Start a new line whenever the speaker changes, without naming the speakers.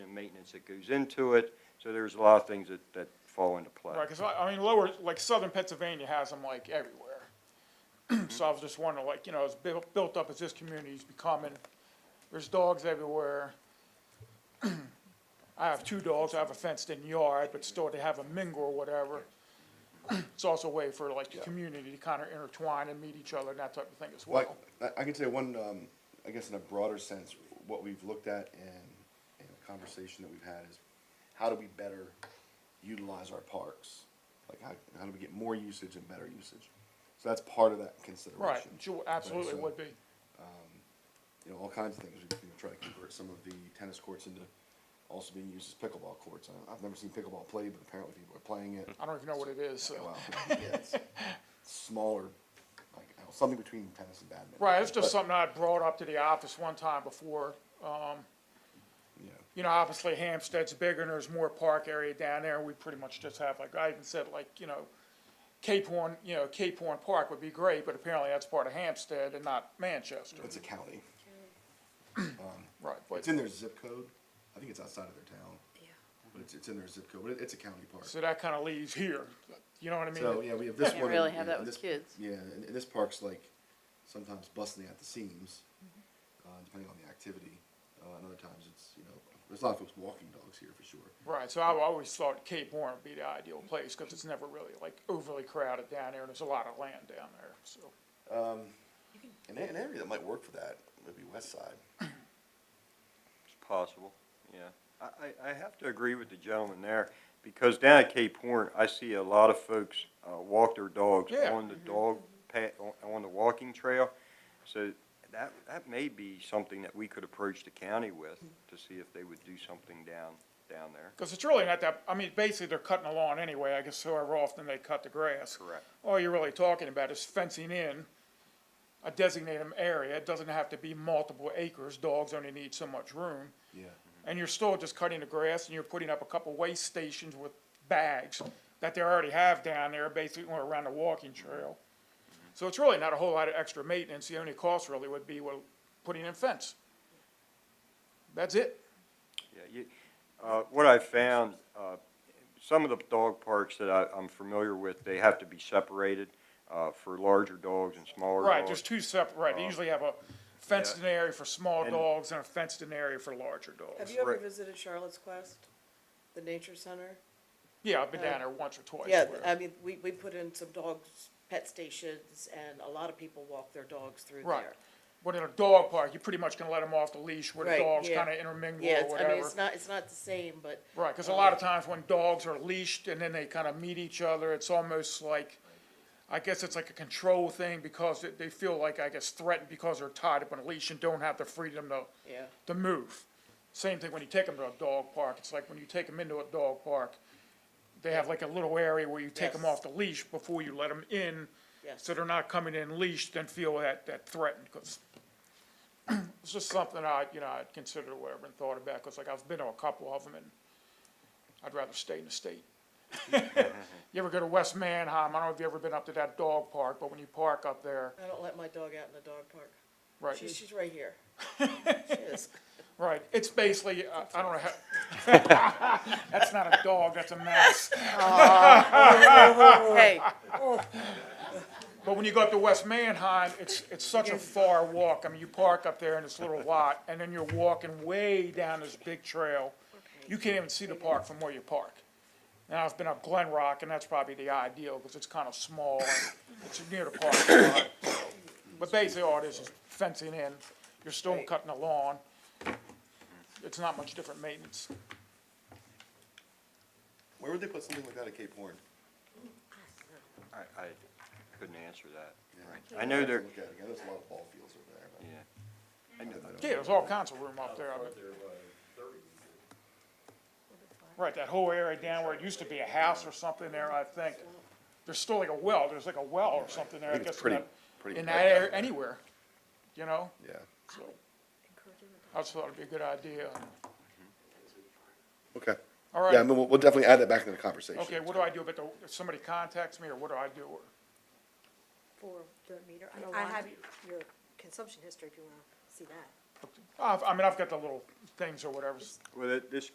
maintenance that goes into it. So there's a lot of things that, that fall into play.
Right, because I, I mean, lower, like southern Pennsylvania has them like everywhere. So I was just wondering, like, you know, as built, built up as this community's becoming, there's dogs everywhere. I have two dogs, I have a fenced-in yard, but still they have a mingle or whatever. It's also a way for like the
Yeah.
community to kind of intertwine and meet each other and that type of thing as well.
Well, I, I can say one, um, I guess in a broader sense, what we've looked at and, and a conversation that we've had is how do we better utilize our parks? Like how, how do we get more usage and better usage? So that's part of that
Right,
consideration.
sure, absolutely
so-
would be,
You know, all kinds of things. We can try to convert some of the tennis courts into also being used as pickleball courts. I, I've never seen pickleball played, but apparently people are playing it.
I don't even know what it is, so.
Wow, yeah, it's smaller, like I don't know, something between tennis and badminton.
Right, it's
But,
just something I had brought up to the office one time before,
Yeah.
you know, obviously Hampstead's bigger and there's more park area down there. We pretty much just have, like, I even said, like, you know, Cape Horn, you know, Cape Horn Park would be great, but apparently that's part of Hampstead and not Manchester.
It's a county.
Right, but,
It's in their zip code. I think it's outside of their town.
Yeah.
But it's, it's in their zip code, but it- it's a county park.
so that kind of leaves here. You know what I
So,
mean?
yeah, we have this
Can't
one.
really
and-
have
yeah,
that
and
with
this-
kids.
Yeah, and, and this park's like sometimes busting at the seams,
Mm-hmm.
uh, depending on the activity. Uh, and other times it's, you know, there's a lot of folks walking dogs here for sure.
Right, so I always thought Cape Horn would be the ideal place because it's never really like overly crowded down there and there's a lot of land down there, so.
And an area that might work for that would be West Side.
It's possible, yeah. I, I, I have to agree with the gentleman there, because down at Cape Horn, I see a lot of folks, uh, walk their dogs
Yeah. Mm-hmm.
on the dog pat, on, on the walking trail. So that, that may be something that we could approach the county with, to see if they would do something down, down there.
Because it's really not that, I mean, basically, they're cutting the lawn anyway, I guess however often they cut the grass.
Correct.
All you're really talking about is fencing in a designated area, it doesn't have to be multiple acres, dogs only need so much room.
Yeah.
And you're still just cutting the grass, and you're putting up a couple waste stations with bags that they already have down there, basically, or around the walking trail. So it's really not a whole lot of extra maintenance, the only cost really would be, well, putting in fence. That's it.
Yeah, you, uh, what I found, uh, some of the dog parks that I, I'm familiar with, they have to be separated, uh, for larger dogs and smaller dogs.
Right, there's two separate, right, they usually have a fenced-in area for small
And-
dogs and a fenced-in area for larger
Have
dogs.
you ever
Right.
visited Charlotte's Quest, the nature center?
Yeah, I've been down there once or twice.
Yeah,
where-
I mean, we, we put in some dogs, pet stations, and a lot of people walk their dogs through
Right.
there.
But in a dog park, you're pretty much gonna let them off the leash where the
Right,
dogs
yeah.
kinda intermingle
Yeah,
or
it's- I mean,
whatever.
it's not, it's not the same, but. um,
Right, cause a lot of times when dogs are leashed and then they kinda meet each other, it's almost like, I guess it's like a control thing because they, they feel like, I guess, threatened because they're tied up on a leash and don't have the freedom to
Yeah.
to move. Same thing when you take them to a dog park, it's like when you take them into a dog park, they have like a little area where you take them
Yes.
off the leash before you let them in.
Yes.
So they're not coming in leashed and feel that, that threatened, 'cause it's just something I, you know, I'd considered or whatever and thought about, cause like I've been to a couple of them and I'd rather stay in the state. You ever go to West Manheim, I don't know if you've ever been up to that dog park, but when you park up there,
I don't let my dog out in the dog park.
right?
She's, she's right here. She is.
Right, it's basically, I I don't know how, that's not a dog, that's a mouse.
Hey,
But when you go up to West Manheim, it's, it's such a far walk. I mean, you park up there in this little lot, and then you're walking way down this big trail. You can't even see the park from where you park. And I've been up Glen Rock, and that's probably the ideal, because it's kind of small, and it's near the park. a lot. But basically, all it is is fencing in. You're still
Right.
cutting the lawn. It's not much different maintenance.
Where would they put something like that at Cape Horn?
I, I couldn't answer that.
Yeah.
I know
I'd have to
there,
Look at it again. There's a lot of ball fields over there. but
yeah.
I don't- I don't-
Yeah, there's all kinds of room up there. I mean- Right, that whole area down where it used to be a house or something there, I think. There's still like a well, there's like a well or something there, I
think
guess,
it's
in
pretty-
that,
pretty
in
packed
that
out
area,
there.
anywhere, you know?
Yeah.
So, I just thought it'd be a good idea.
Okay.
All right.
Yeah, I mean, we'll, we'll definitely add that back into the conversation.
Okay, what do I do about the, if somebody contacts me or what do I do? Or-
for the meter. I-
You don't
I
want
have your consumption history if you wanna see that.
I've, I mean, I've got the little things or whatever.
Well, that- this